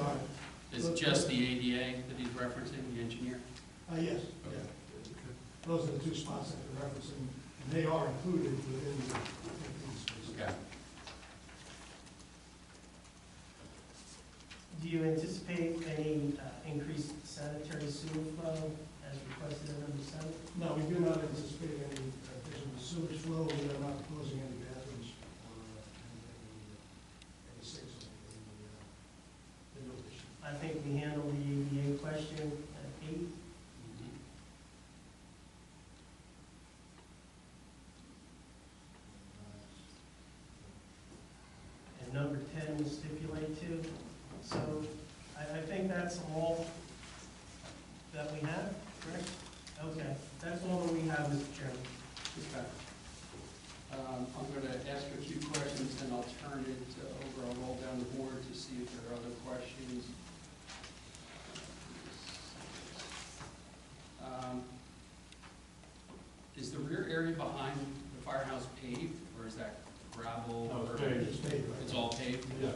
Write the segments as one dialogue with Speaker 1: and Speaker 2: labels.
Speaker 1: Uh,
Speaker 2: just the ADA that he's referencing, the engineer?
Speaker 1: Uh, yes, yeah. Those are the two spots that they're referencing, and they are included within the fifteen spaces.
Speaker 2: Okay.
Speaker 3: Do you anticipate any uh, increased sanitary sewer flow as requested in number seven?
Speaker 1: No, we do not anticipate any additional sewage flow, we are not closing any bathrooms or uh, any, any sinks in the, in the, uh, in the addition.
Speaker 3: I think we handled the ADA question at eight. and number ten will stipulate to. So I, I think that's all that we have, correct? Okay, that's all that we have, Mr. Chairman.
Speaker 2: Mm-hmm. Okay. Um, I'm going to ask a few questions, and I'll turn it uh, over, I'll roll down the board to see if there are other questions. Um, Is the rear area behind the firehouse paved, or is that gravel?
Speaker 4: No, it's
Speaker 2: or-
Speaker 4: paved.
Speaker 1: It's paved, right?
Speaker 2: It's all paved?
Speaker 4: Yes,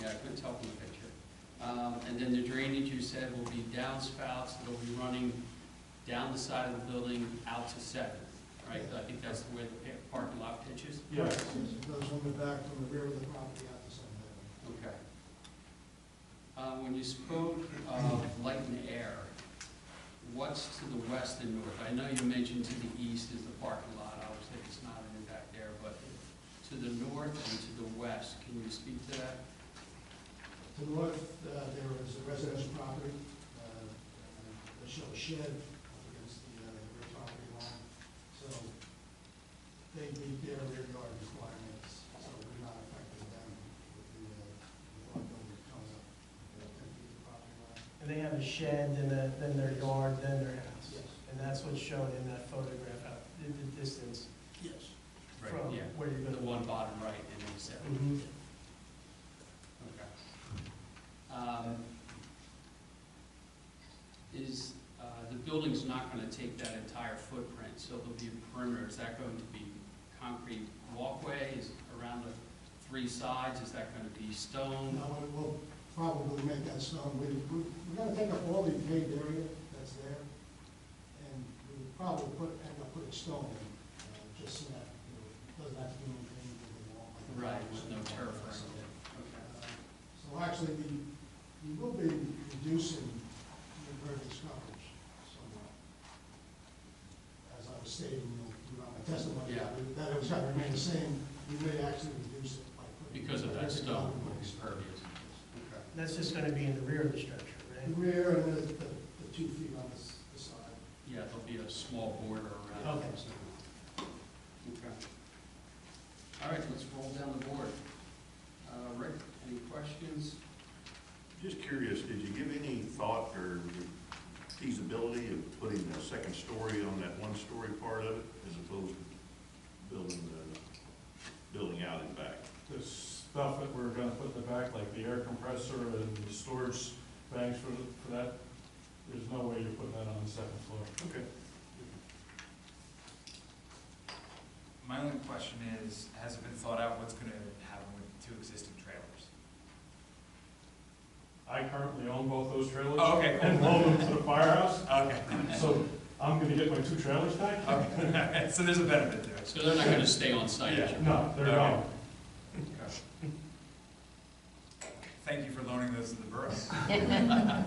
Speaker 2: Yeah, I couldn't tell from the picture. Um, And then the drainage, you said, will be downspouts that'll be running down the side of the building out to Seventh, right? I think that's the way the pa- parking lot pitches?
Speaker 4: yes.
Speaker 1: Yes, It goes from the back, from the rear of the property out to Sunset Avenue.
Speaker 2: Okay. Uh, When you spoke of light and air, what's to the west and north? I know you mentioned to the east is the parking lot, obviously it's not an impact there, but to the north and to the west, can you speak to that?
Speaker 1: To the north, uh, there is a residential property, uh, and they show a shed up against the uh, rear property line. So they meet their rear yard requirements, so we're not affecting them with the, uh, with our building that comes up. uh, ten feet to property line.
Speaker 3: And they have a shed, then a, then their yard, then their house.
Speaker 1: Yes.
Speaker 3: And that's what's shown in that photograph, out, the, the distance
Speaker 1: Yes.
Speaker 3: from where you're
Speaker 2: The
Speaker 3: gonna.
Speaker 2: one bottom right and then Seventh.
Speaker 3: Mhm.
Speaker 2: Okay. Um, Is, uh, the building's not going to take that entire footprint, so there'll be a perimeter. Is that going to be concrete walkway is around the three sides? Is that going to be stone?
Speaker 1: No, we will probably make that stone, we, we- we're gonna take up all the paved area that's there, and we would probably put, end up putting stone in, uh, just so that, you know, doesn't have to be maintained with the wall. like a-
Speaker 2: Right, with no turf or
Speaker 1: So,
Speaker 2: anything.
Speaker 1: uh,
Speaker 2: Okay.
Speaker 1: So actually, we, we will be reducing the impervious coverage somewhat. As I was stating, you know, throughout my testimony,
Speaker 2: Yeah.
Speaker 1: that it was gonna remain the same, we may actually reduce it by putting.
Speaker 2: Because of that
Speaker 1: impervious
Speaker 2: stone,
Speaker 1: coverage.
Speaker 2: it's pervious. Okay.
Speaker 3: That's just gonna be in the rear of the structure,
Speaker 1: The
Speaker 3: right?
Speaker 1: rear and the, the the two feet on this, the side.
Speaker 2: Yeah, there'll be a small border around. it.
Speaker 3: Okay.
Speaker 2: Okay. All right, let's roll down the board. Uh, Rick, any questions?
Speaker 5: Just curious, did you give any thought or feasibility of putting a second story on that one-story part of it as opposed to building the, building out and back?
Speaker 4: The stuff that we're gonna put in the back, like the air compressor and the storage bags for, for that, there's no way you're putting that on the second floor.
Speaker 5: Okay.
Speaker 6: My only question is, has it been thought out what's gonna happen with two existing trailers?
Speaker 4: I currently own both those trailers.
Speaker 6: Oh, okay.
Speaker 4: And load them to the firehouse,
Speaker 6: Okay, Oh,
Speaker 4: so I'm gonna get my two trailers back?
Speaker 6: okay, so there's a benefit to it.
Speaker 2: So they're not going to stay on site?
Speaker 6: Yeah.
Speaker 4: No, they're gone.
Speaker 6: Thank you for loaning those to the borough. Yeah.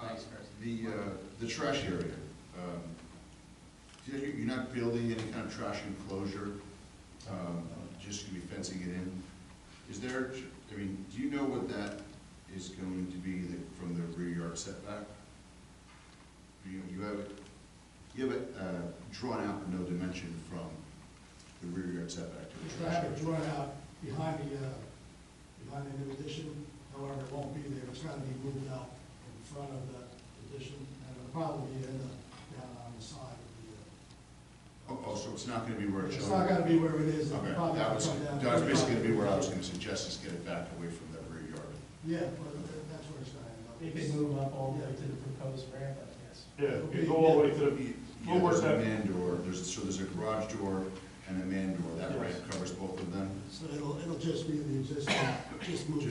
Speaker 2: Thanks, Chris.
Speaker 7: The, uh, the trash area, um, you're you're not building any kind of trash enclosure, um, just gonna be fencing it in. Is there, I mean, do you know what that is going to be the- from the rear yard setback? You, you have, it- you have it, uh, drawn out no dimension from the rear yard setback to
Speaker 1: The
Speaker 7: the trash
Speaker 1: traffic
Speaker 7: area.
Speaker 1: drawn out behind the, uh, behind the new addition, however, it won't be there, it's gonna be moved out in front of the addition, and it'll probably end up down on the side of
Speaker 7: Oh, oh, so it's not gonna be where
Speaker 1: the, uh,
Speaker 7: it's.
Speaker 1: it's not gonna be where it is, it'll
Speaker 7: Okay,
Speaker 1: probably
Speaker 7: that was,
Speaker 1: come down.
Speaker 7: that was basically gonna be where I was gonna suggest is get it back away from that rear yard.
Speaker 1: Yeah, but that- that's where it's gonna end up.
Speaker 3: It could move up all the way to the proposed ramp, I guess.
Speaker 4: Yeah, you go all the way to the,
Speaker 7: Yeah,
Speaker 4: We'll
Speaker 7: there's
Speaker 4: work
Speaker 7: a
Speaker 4: that-
Speaker 7: man door, there's, so there's a garage door and a man door, that
Speaker 4: Yes.
Speaker 7: ramp covers both of them?
Speaker 1: So it'll, it'll just be the existing, just move